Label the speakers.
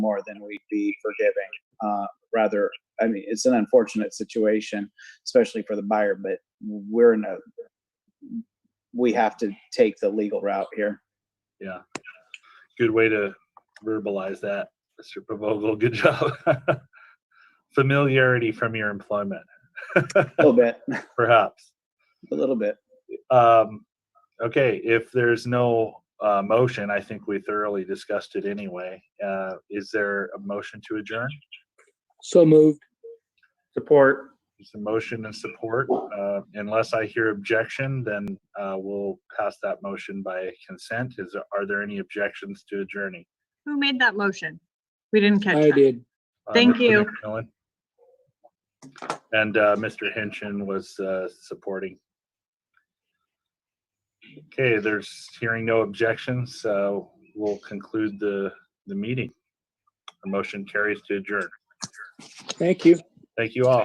Speaker 1: more than we'd be forgiving. Uh, rather, I mean, it's an unfortunate situation, especially for the buyer, but we're in a, we have to take the legal route here.
Speaker 2: Yeah. Good way to verbalize that, Mr. Pavogal. Good job. Familiarity from your employment,
Speaker 1: A little bit,
Speaker 2: perhaps.
Speaker 1: a little bit.
Speaker 2: Um, okay, if there's no uh, motion, I think we thoroughly discussed it anyway. Uh, is there a motion to adjourn?
Speaker 3: So moved.
Speaker 4: Support.
Speaker 2: There's a motion and support. Uh, unless I hear objection, then uh, we'll pass that motion by consent. Is are there any objections to adjourning?
Speaker 5: Who made that motion? We didn't catch
Speaker 3: I
Speaker 5: that.
Speaker 3: did.
Speaker 2: Uh,
Speaker 5: Thank
Speaker 2: Mr.
Speaker 5: you.
Speaker 2: McMillan. And uh, Mr. Hinchin was uh, supporting. Okay, there's hearing no objections, so we'll conclude the, the meeting. The motion carries to adjourn.
Speaker 3: Thank you.
Speaker 2: Thank you all.